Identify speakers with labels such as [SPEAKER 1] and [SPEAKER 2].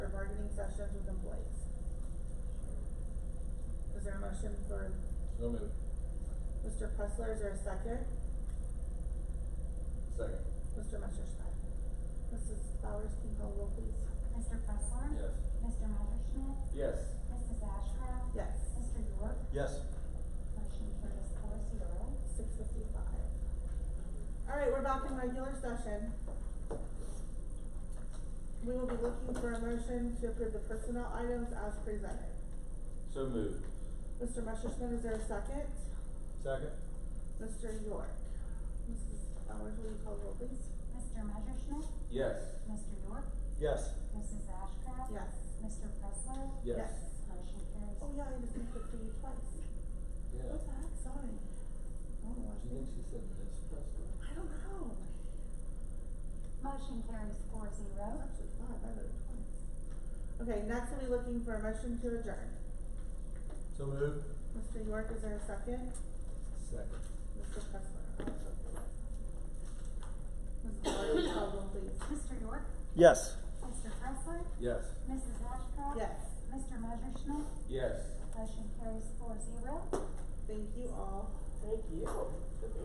[SPEAKER 1] concerns with employees. Is there a motion for
[SPEAKER 2] So moved.
[SPEAKER 1] Mr. Pressler, is there a second?
[SPEAKER 2] Second.
[SPEAKER 1] Mr. Messerschmidt. Mrs. Flowers, can you call roll please?
[SPEAKER 3] Mr. Pressler?
[SPEAKER 2] Yes.
[SPEAKER 3] Mr. Messerschmidt?
[SPEAKER 2] Yes.
[SPEAKER 3] Mrs. Ashcraft?
[SPEAKER 1] Yes.
[SPEAKER 3] Mr. York?
[SPEAKER 2] Yes.
[SPEAKER 3] Motion carries four zero.
[SPEAKER 1] Six fifty-five. All right, we're back in regular session. We will be looking for a motion to approve the personnel items as presented.
[SPEAKER 2] So moved.
[SPEAKER 1] Mr. Messerschmidt, is there a second?
[SPEAKER 2] Second.
[SPEAKER 1] Mr. York. Mrs. Flowers, will you call roll please?
[SPEAKER 3] Mr. Messerschmidt?
[SPEAKER 2] Yes.
[SPEAKER 3] Mr. York?
[SPEAKER 2] Yes.
[SPEAKER 3] Mrs. Ashcraft?
[SPEAKER 1] Yes.
[SPEAKER 3] Mr. Pressler?
[SPEAKER 2] Yes.
[SPEAKER 3] Motion carries.
[SPEAKER 1] Oh yeah, I just moved it for you twice.
[SPEAKER 2] Yeah.
[SPEAKER 1] What the heck, sorry. I don't know why
[SPEAKER 2] Do
[SPEAKER 1] she
[SPEAKER 2] you think she said Miss Prescott?
[SPEAKER 1] I don't know.
[SPEAKER 3] Motion carries four
[SPEAKER 1] That was
[SPEAKER 3] zero.
[SPEAKER 1] actually five, I voted twice. Okay, next we'll be looking for a motion to adjourn.
[SPEAKER 2] So moved.
[SPEAKER 1] Mr. York, is there a second?
[SPEAKER 2] Second.
[SPEAKER 1] Mr. Pressler, I'll check the list. Mrs. Flowers, call roll please.
[SPEAKER 3] Mr. York?
[SPEAKER 4] Yes.
[SPEAKER 3] Mr. Pressler?
[SPEAKER 2] Yes.
[SPEAKER 3] Mrs. Ashcraft?
[SPEAKER 1] Yes,
[SPEAKER 3] Mr. Messerschmidt?
[SPEAKER 2] Yes.
[SPEAKER 3] Motion carries four zero.
[SPEAKER 1] thank you all.
[SPEAKER 2] Thank you.